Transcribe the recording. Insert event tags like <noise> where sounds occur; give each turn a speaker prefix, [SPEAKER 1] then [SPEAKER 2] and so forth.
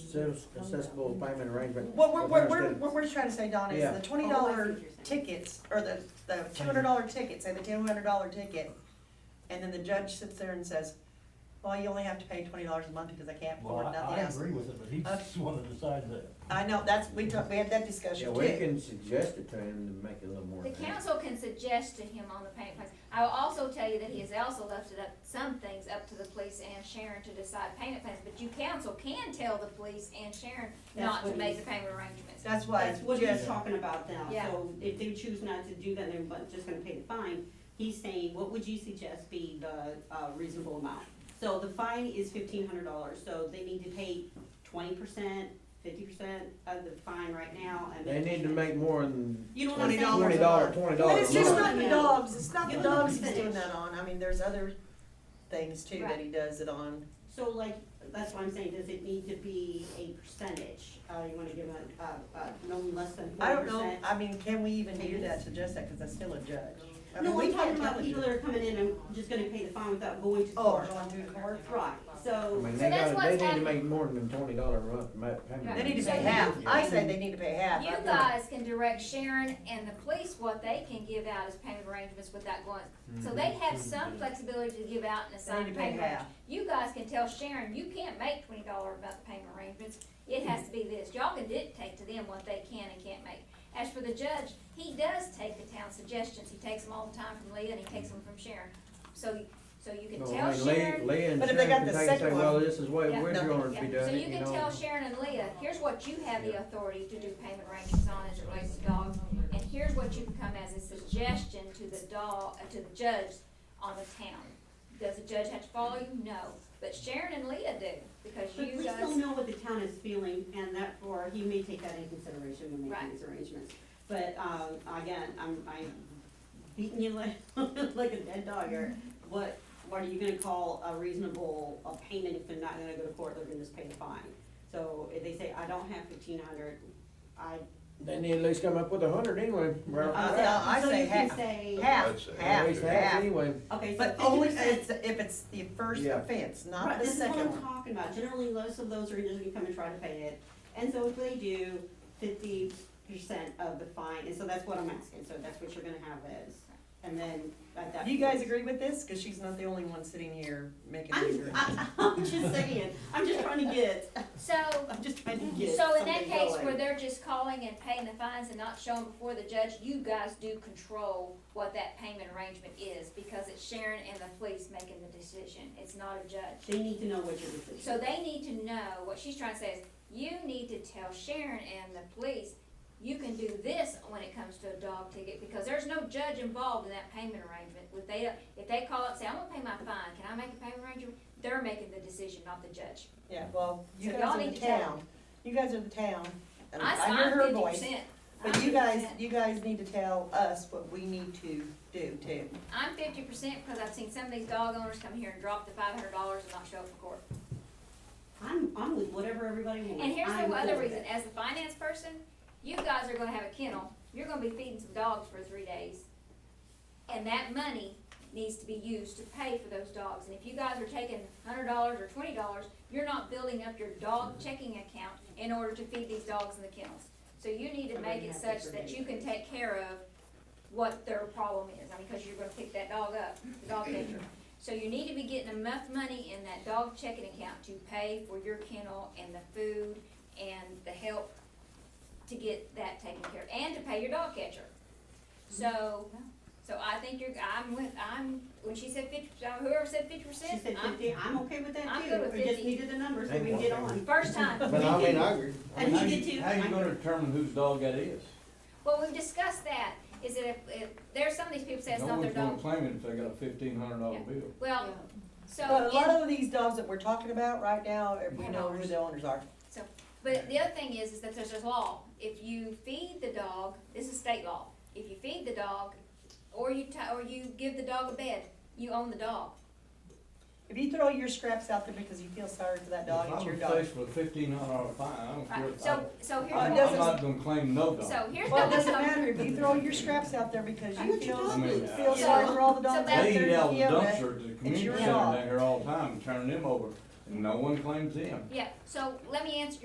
[SPEAKER 1] Access- Accessible payment arrangement.
[SPEAKER 2] What we're, what we're,
[SPEAKER 1] Understood.
[SPEAKER 2] what we're trying to say, Donna, is
[SPEAKER 1] Yeah.
[SPEAKER 2] the twenty dollar tickets, or the, the two hundred dollar ticket, say the two hundred dollar ticket, and then the judge sits there and says, well, you only have to pay twenty dollars a month because I can't
[SPEAKER 3] Well,
[SPEAKER 2] afford
[SPEAKER 3] I, I
[SPEAKER 2] nothing else.
[SPEAKER 3] agree with it, but he's
[SPEAKER 2] Okay.
[SPEAKER 3] the one that decides that.
[SPEAKER 2] I know, that's, we talked, we had that
[SPEAKER 1] Yeah,
[SPEAKER 2] discussion
[SPEAKER 1] we
[SPEAKER 2] too.
[SPEAKER 1] can suggest it to him to make it a little more.
[SPEAKER 4] The
[SPEAKER 1] fair.
[SPEAKER 4] council can suggest to him on the payment plans. I will also tell you that he has also left it up, some things up to the police and Sharon to decide payment plans, but you council can tell the police and Sharon
[SPEAKER 5] That's
[SPEAKER 4] not to
[SPEAKER 5] what
[SPEAKER 4] make
[SPEAKER 5] he's-
[SPEAKER 4] the payment arrangements.
[SPEAKER 2] That's why,
[SPEAKER 5] That's what
[SPEAKER 2] just,
[SPEAKER 5] he's talking about now,
[SPEAKER 4] Yeah.
[SPEAKER 5] so if they choose not to do that, and they're just gonna pay the fine, he's saying, what would you suggest be the, uh, reasonable amount? So the fine is fifteen hundred dollars, so they need to pay twenty percent, fifty percent of the fine right now, and.
[SPEAKER 1] They need to make more than
[SPEAKER 5] You know what I'm
[SPEAKER 1] twenty
[SPEAKER 5] saying?
[SPEAKER 1] dollars, twenty
[SPEAKER 2] but
[SPEAKER 1] dollars
[SPEAKER 2] it's
[SPEAKER 1] a
[SPEAKER 2] just
[SPEAKER 1] month.
[SPEAKER 2] not the dogs, it's not the
[SPEAKER 5] Yeah.
[SPEAKER 2] dogs he's doing that on, I mean, there's other things too that
[SPEAKER 4] Right.
[SPEAKER 2] he does it on.
[SPEAKER 5] So like, that's why I'm saying, does it need to be a percentage, uh, you wanna give a, uh, uh, no less than
[SPEAKER 2] I
[SPEAKER 5] forty
[SPEAKER 2] don't
[SPEAKER 5] percent?
[SPEAKER 2] know, I mean, can we even do
[SPEAKER 5] Tickets.
[SPEAKER 2] that, suggest that, cause that's still a judge. I mean,
[SPEAKER 5] No,
[SPEAKER 2] we
[SPEAKER 5] we're
[SPEAKER 2] can't
[SPEAKER 5] talking
[SPEAKER 2] tell
[SPEAKER 5] about
[SPEAKER 2] the
[SPEAKER 5] people
[SPEAKER 2] judge.
[SPEAKER 5] that are coming in and just gonna pay the fine without going to
[SPEAKER 2] Oh,
[SPEAKER 5] court.
[SPEAKER 2] going to the court.
[SPEAKER 5] Right,
[SPEAKER 1] I
[SPEAKER 5] so,
[SPEAKER 1] mean,
[SPEAKER 4] So
[SPEAKER 1] they
[SPEAKER 4] that's
[SPEAKER 1] gotta,
[SPEAKER 4] what's
[SPEAKER 1] they need to
[SPEAKER 4] happening.
[SPEAKER 1] make more than twenty dollars a month to make payment.
[SPEAKER 2] They need to
[SPEAKER 4] So
[SPEAKER 2] pay
[SPEAKER 4] you-
[SPEAKER 2] half, I say they need to pay half.
[SPEAKER 4] You
[SPEAKER 2] I don't-
[SPEAKER 4] guys can direct Sharon and the police what they can give out as payment arrangements without going,
[SPEAKER 1] Mm-hmm.
[SPEAKER 4] so they have some flexibility to give out and
[SPEAKER 2] They
[SPEAKER 4] assign
[SPEAKER 2] need to pay
[SPEAKER 4] payment. arrangements.
[SPEAKER 2] half.
[SPEAKER 4] You guys can tell Sharon, you can't make twenty dollar about the payment arrangements, it has to be this, y'all can dictate to them what they can and can't make. As for the judge, he does take the town suggestions, he takes them all the time from Leah and he takes them from Sharon, so, so you can
[SPEAKER 1] Well,
[SPEAKER 4] tell
[SPEAKER 1] I mean, Lee-
[SPEAKER 4] Sharon.
[SPEAKER 1] Lee and
[SPEAKER 2] But if they got
[SPEAKER 1] Sharon
[SPEAKER 2] the
[SPEAKER 1] can take and say,
[SPEAKER 2] second
[SPEAKER 1] well,
[SPEAKER 2] one-
[SPEAKER 1] this is what
[SPEAKER 4] Yeah,
[SPEAKER 1] we're
[SPEAKER 2] no.
[SPEAKER 1] going to be
[SPEAKER 4] Yeah, so
[SPEAKER 1] doing,
[SPEAKER 4] you
[SPEAKER 1] you
[SPEAKER 4] can
[SPEAKER 1] know.
[SPEAKER 4] tell Sharon and Leah, here's what you have the authority to do payment arrangements on as it relates to dogs, and here's what you can come as a suggestion to the dog, uh, to the judge on the town. Does the judge have to follow you? No, but Sharon and Leah do, because
[SPEAKER 5] but
[SPEAKER 4] you
[SPEAKER 5] we still
[SPEAKER 4] guys,
[SPEAKER 5] know what the town is feeling, and that, or he may take that into consideration when making
[SPEAKER 4] Right.
[SPEAKER 5] these arrangements. But, um, again, I'm, I'm beating you like, <laughs> like a dead dog here. What, what are you gonna call a reasonable, a payment if they're not gonna go to court, they're gonna just pay the fine? So if they say, I don't have fifteen hundred, I,
[SPEAKER 1] They need to at least come up with a hundred anyway, right off
[SPEAKER 2] Uh,
[SPEAKER 1] the bat.
[SPEAKER 2] I
[SPEAKER 5] so
[SPEAKER 2] say
[SPEAKER 5] you can
[SPEAKER 2] half.
[SPEAKER 5] say,
[SPEAKER 2] Half,
[SPEAKER 6] I'd say
[SPEAKER 1] At
[SPEAKER 2] half,
[SPEAKER 1] least half
[SPEAKER 2] half.
[SPEAKER 1] anyway.
[SPEAKER 5] okay, so
[SPEAKER 2] But only
[SPEAKER 5] fifty percent.
[SPEAKER 2] it's, if it's the first
[SPEAKER 1] Yeah.
[SPEAKER 2] offense,
[SPEAKER 5] Right,
[SPEAKER 2] not the
[SPEAKER 5] this is what
[SPEAKER 2] second
[SPEAKER 5] I'm
[SPEAKER 2] one.
[SPEAKER 5] talking about, generally, most of those are just gonna come and try to pay it, and so if they do, fifty percent of the fine, and so that's what I'm asking, so that's what you're gonna have is, and then at that.
[SPEAKER 2] You guys
[SPEAKER 5] point-
[SPEAKER 2] agree with this? Cause she's not the only one sitting here making these
[SPEAKER 5] I'm,
[SPEAKER 2] agreements.
[SPEAKER 5] I, I'm just saying, I'm just trying to get,
[SPEAKER 4] so,
[SPEAKER 5] I'm just trying to get
[SPEAKER 4] so in that
[SPEAKER 5] something
[SPEAKER 4] case
[SPEAKER 5] going.
[SPEAKER 4] where they're just calling and paying the fines and not showing before the judge, you guys do control what that payment arrangement is, because it's Sharon and the police making the decision, it's not a judge.
[SPEAKER 5] They need to know what your decision.
[SPEAKER 4] So they need to know, what she's trying to say is, you need to tell Sharon and the police, you can do this when it comes to a dog ticket, because there's no judge involved in that payment arrangement. If they, if they call up and say, I'm gonna pay my fine, can I make a payment arrangement? They're making the decision, not the judge.
[SPEAKER 2] Yeah, well, you
[SPEAKER 4] So y'all
[SPEAKER 2] guys are
[SPEAKER 4] need
[SPEAKER 2] the
[SPEAKER 4] to tell
[SPEAKER 2] town, you guys are the town, and
[SPEAKER 4] I,
[SPEAKER 2] I hear
[SPEAKER 4] I'm
[SPEAKER 2] her
[SPEAKER 4] fifty
[SPEAKER 2] voice.
[SPEAKER 4] percent.
[SPEAKER 2] But you guys, you guys need to tell us what we need to do too.
[SPEAKER 4] I'm fifty percent because I've seen some of these dog owners come here and drop the five hundred dollars and not show up for court.
[SPEAKER 5] I'm, I'm with whatever everybody wants.
[SPEAKER 4] And here's
[SPEAKER 5] I'm
[SPEAKER 4] the other
[SPEAKER 5] for it.
[SPEAKER 4] reason, as the finance person, you guys are gonna have a kennel, you're gonna be feeding some dogs for three days. And that money needs to be used to pay for those dogs, and if you guys are taking hundred dollars or twenty dollars, you're not building up your dog checking account in order to feed these dogs in the kennels. So you need to make it such that you can take care of what their problem is, I mean, cause you're gonna pick that dog up, the dog <coughs> catcher. So you need to be getting enough money in that dog checking account to pay for your kennel and the food and the help to get that taken care of, and to pay your dog catcher. So, so I think you're, I'm with, I'm, when she said fifty, uh, whoever said fifty
[SPEAKER 5] She
[SPEAKER 4] percent,
[SPEAKER 5] said
[SPEAKER 4] I'm,
[SPEAKER 5] fifty, I'm okay with that
[SPEAKER 4] I'm
[SPEAKER 5] too,
[SPEAKER 4] good with
[SPEAKER 5] we just
[SPEAKER 4] 50.
[SPEAKER 5] needed the number so
[SPEAKER 1] They
[SPEAKER 5] we can
[SPEAKER 1] want
[SPEAKER 5] get
[SPEAKER 1] that.
[SPEAKER 5] on.
[SPEAKER 4] first time.
[SPEAKER 1] But I mean, I agree. I
[SPEAKER 5] And
[SPEAKER 1] mean,
[SPEAKER 5] he did too.
[SPEAKER 7] How you
[SPEAKER 5] I
[SPEAKER 7] gonna
[SPEAKER 5] did.
[SPEAKER 7] determine whose dog that is?
[SPEAKER 4] Well, we've discussed that, is that if, if, there's some of these people say it's
[SPEAKER 7] No
[SPEAKER 4] not their
[SPEAKER 7] one's gonna
[SPEAKER 4] dog.
[SPEAKER 7] claim it if they got a fifteen hundred dollar
[SPEAKER 4] Yeah.
[SPEAKER 7] bill.
[SPEAKER 4] Well, so.
[SPEAKER 2] But a lot
[SPEAKER 4] in-
[SPEAKER 2] of these dogs that we're talking about right now, we know who the owners are.
[SPEAKER 4] But the other thing is, is that there's a law, if you feed the dog, this is state law, if you feed the dog, or you ti- or you give the dog a bed, you own the dog.
[SPEAKER 2] If you throw your scraps out there because you feel sorry for that dog, it's your
[SPEAKER 7] If I was
[SPEAKER 2] dog.
[SPEAKER 7] faced with a fifteen hundred dollar fine, I don't care.
[SPEAKER 4] Right,
[SPEAKER 7] if
[SPEAKER 4] so,
[SPEAKER 7] I-
[SPEAKER 4] so here's
[SPEAKER 2] Uh,
[SPEAKER 4] what,
[SPEAKER 2] doesn't-
[SPEAKER 7] I'm not gonna claim no dog.
[SPEAKER 4] so here's
[SPEAKER 2] Well, it doesn't
[SPEAKER 4] what-
[SPEAKER 2] matter, if you throw your scraps out there because you
[SPEAKER 5] What you
[SPEAKER 2] feel,
[SPEAKER 5] doing?
[SPEAKER 7] I mean,
[SPEAKER 2] feel sorry for all the dogs out there.
[SPEAKER 7] They eat
[SPEAKER 2] in
[SPEAKER 7] out of the
[SPEAKER 2] Kyoto.
[SPEAKER 7] dumpster at the community
[SPEAKER 2] your
[SPEAKER 7] center
[SPEAKER 2] dog.
[SPEAKER 7] down here all the time, and turn them over, and no one claims them.
[SPEAKER 4] Yeah, so let me answer